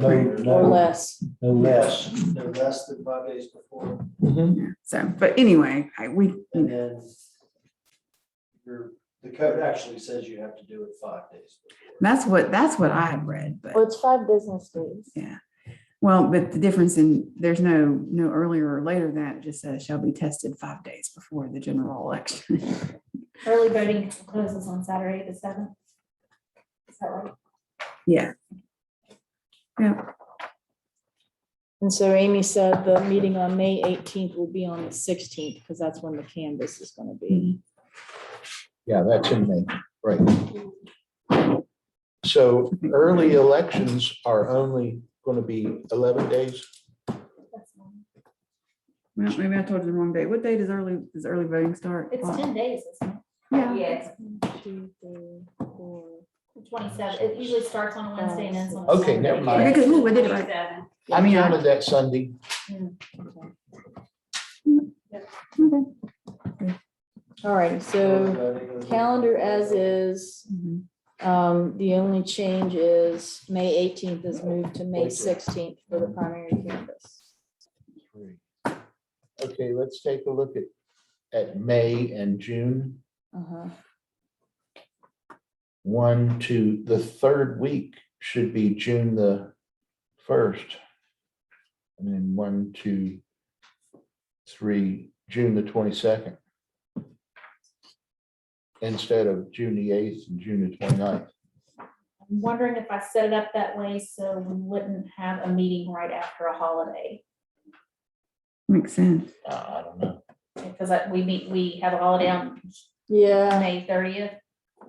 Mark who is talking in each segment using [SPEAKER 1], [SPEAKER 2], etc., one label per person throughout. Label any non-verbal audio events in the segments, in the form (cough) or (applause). [SPEAKER 1] No,
[SPEAKER 2] or
[SPEAKER 1] no,
[SPEAKER 2] less.
[SPEAKER 1] no less.
[SPEAKER 3] No less than five days before,
[SPEAKER 4] Yeah, So, but anyway, I, we,
[SPEAKER 3] and then your, the code actually says you have to do it five days before.
[SPEAKER 4] that's what, that's what I had read, but.
[SPEAKER 2] Well, it's five business days.
[SPEAKER 4] Yeah. Well, but the difference in, there's no, no earlier or later than that, it just says shall be tested five days before the general election. (laughs)
[SPEAKER 5] Early voting closes on Saturday, the seventh. Is that right?
[SPEAKER 4] Yeah,
[SPEAKER 2] And so Amy said the meeting on May eighteenth will be on the sixteenth, because that's when the canvas is gonna
[SPEAKER 6] Mm-hmm.
[SPEAKER 2] be.
[SPEAKER 1] Yeah, that's in May, right. So early elections are only going to be 11 days.
[SPEAKER 5] That's fine.
[SPEAKER 4] well, maybe I told you the wrong date. What date is early, does early voting start?
[SPEAKER 5] It's
[SPEAKER 4] Well,
[SPEAKER 5] ten days, isn't
[SPEAKER 4] Yeah,
[SPEAKER 5] Yes.
[SPEAKER 2] Two, three, four.
[SPEAKER 5] Twenty-seven, it usually starts on a Wednesday and ends on. a
[SPEAKER 1] Okay,
[SPEAKER 5] Saturday.
[SPEAKER 1] never mind.
[SPEAKER 4] Okay, 'cause we did it right.
[SPEAKER 5] 27.
[SPEAKER 1] I
[SPEAKER 4] mean, I-
[SPEAKER 1] counted that Sunday.
[SPEAKER 2] okay.
[SPEAKER 4] okay.
[SPEAKER 2] All right, so calendar as is,
[SPEAKER 4] Mhm.
[SPEAKER 2] um, the only change is May eighteenth is moved to May sixteenth for the primary canvas.
[SPEAKER 1] Three. Okay, let's take a look at, at May and June.
[SPEAKER 2] Uh-huh.
[SPEAKER 1] One, two, the third week should be June the first. And then one, two, three, June the twenty-second. Instead of June the eighth and June the 29th.
[SPEAKER 5] I'm wondering if I set it up that way so we wouldn't have a meeting right after a holiday.
[SPEAKER 4] Makes sense.
[SPEAKER 1] I I don't know.
[SPEAKER 5] Because I- we meet, we have a holiday on
[SPEAKER 2] Yeah,
[SPEAKER 5] May thirtieth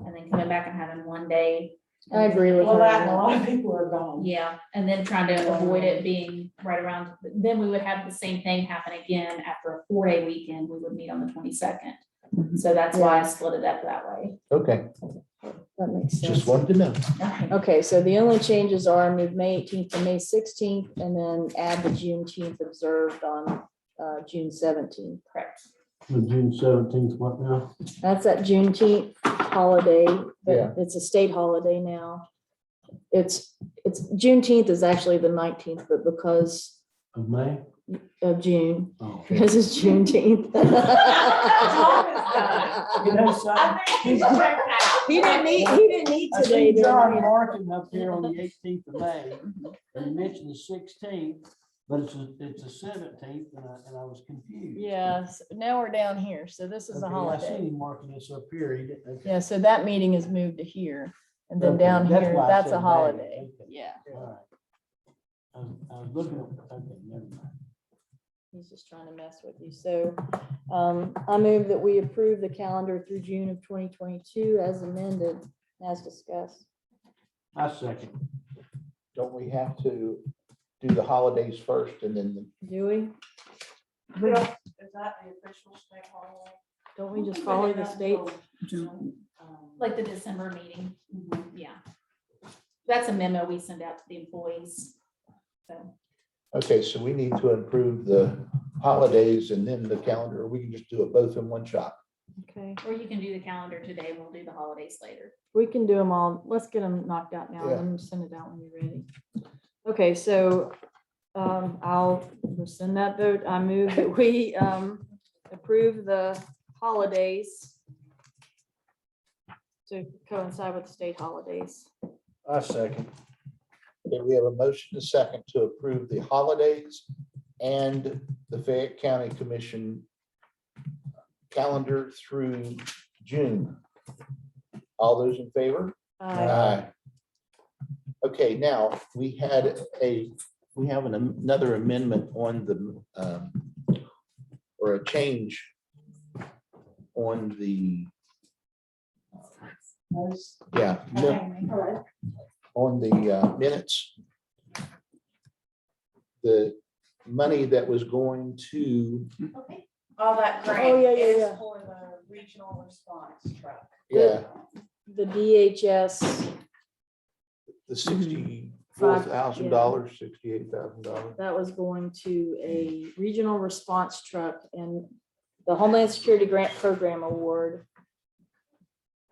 [SPEAKER 5] and then coming back and having one day.
[SPEAKER 2] I agree with
[SPEAKER 6] Well, that, and a
[SPEAKER 2] her.
[SPEAKER 6] lot of people are gone.
[SPEAKER 5] Yeah, and then trying to avoid it being right around, then we would have the same thing happen again after a four-day weekend, we would meet on the twenty-second.
[SPEAKER 4] Mhm.
[SPEAKER 5] So that's why I split it up that way.
[SPEAKER 1] Okay,
[SPEAKER 2] That makes sense.
[SPEAKER 1] just wanted to know.
[SPEAKER 2] Okay, so the only changes are move May eighteenth to May sixteenth and then add the Juneteenth observed on uh, June seventeenth.
[SPEAKER 5] Correct.
[SPEAKER 3] June seventeenth, what now?
[SPEAKER 2] That's that Juneteenth holiday,
[SPEAKER 1] Yeah.
[SPEAKER 2] but it's a state holiday now. It's, it's, Juneteenth is actually the nineteenth, but because
[SPEAKER 3] Of May? Oh.
[SPEAKER 2] of June,
[SPEAKER 1] Okay.
[SPEAKER 2] because it's Juneteenth.
[SPEAKER 6] You know, so
[SPEAKER 5] Um,
[SPEAKER 7] (laughs)
[SPEAKER 5] (laughs)
[SPEAKER 6] he's-
[SPEAKER 2] (laughs) He didn't need, he didn't need
[SPEAKER 6] I
[SPEAKER 2] today.
[SPEAKER 6] see
[SPEAKER 2] did
[SPEAKER 6] John
[SPEAKER 2] he?
[SPEAKER 6] Martin up there on the eighteenth of May, and he mentioned the sixteenth, but it's, a- it's the seventeenth, and I, and I was confused.
[SPEAKER 2] Yes, now we're down here, so this is a
[SPEAKER 6] Okay, I
[SPEAKER 2] holiday.
[SPEAKER 6] seen him marking this up here, he didn't. okay.
[SPEAKER 2] Yeah, so that meeting is moved to here, and then
[SPEAKER 6] Okay,
[SPEAKER 2] down
[SPEAKER 6] that's
[SPEAKER 2] here,
[SPEAKER 6] why I
[SPEAKER 2] that's
[SPEAKER 6] said
[SPEAKER 2] a
[SPEAKER 6] May,
[SPEAKER 2] holiday,
[SPEAKER 6] okay.
[SPEAKER 2] yeah.
[SPEAKER 6] All right. I was, I was looking, at- okay, never mind.
[SPEAKER 2] He's just trying to mess with you, so, um, I move that we approve the calendar through June of twenty twenty-two as amended, as discussed.
[SPEAKER 6] I second.
[SPEAKER 1] Don't we have to do the holidays first and then the
[SPEAKER 2] Do we,
[SPEAKER 7] We don't, is that the official state holiday?
[SPEAKER 2] don't we just follow the state?
[SPEAKER 4] June.
[SPEAKER 7] Um,
[SPEAKER 5] Like the December meeting,
[SPEAKER 7] mhm.
[SPEAKER 5] yeah. That's a memo we send out to the employees. So
[SPEAKER 1] Okay, so we need to improve the holidays and then the calendar. or We can just do it both in one shot.
[SPEAKER 2] Okay,
[SPEAKER 5] Or you can do the calendar today, we'll do the holidays later.
[SPEAKER 2] we can do them all, let's get them knocked out now,
[SPEAKER 1] Yeah.
[SPEAKER 2] and then send it out when you're ready. Okay, so, um, I'll rescind that vote, I move that we, um, approve the holidays to coincide with the state holidays.
[SPEAKER 3] I second.
[SPEAKER 1] Okay, we have a motion and a second to approve the holidays and the Fayette County Commission calendar through June. All those in favor?
[SPEAKER 2] Aye.
[SPEAKER 1] Okay, now, we had a, we have an- another amendment on the, um, or a change on the, yeah, no, on the uh, minutes. The money that was going to,
[SPEAKER 5] Okay.
[SPEAKER 7] All that
[SPEAKER 2] Oh,
[SPEAKER 7] grant
[SPEAKER 2] yeah, yeah,
[SPEAKER 7] is
[SPEAKER 2] yeah.
[SPEAKER 7] for the uh, regional response truck.
[SPEAKER 1] yeah,
[SPEAKER 2] The DHS,
[SPEAKER 1] the sixty-four thousand dollars, sixty-eight thousand dollars.
[SPEAKER 2] that was going to a regional response truck and the Homeland Security Grant Program Award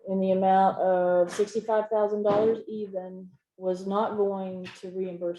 [SPEAKER 2] in the amount of sixty-five thousand dollars even was not going to reimburse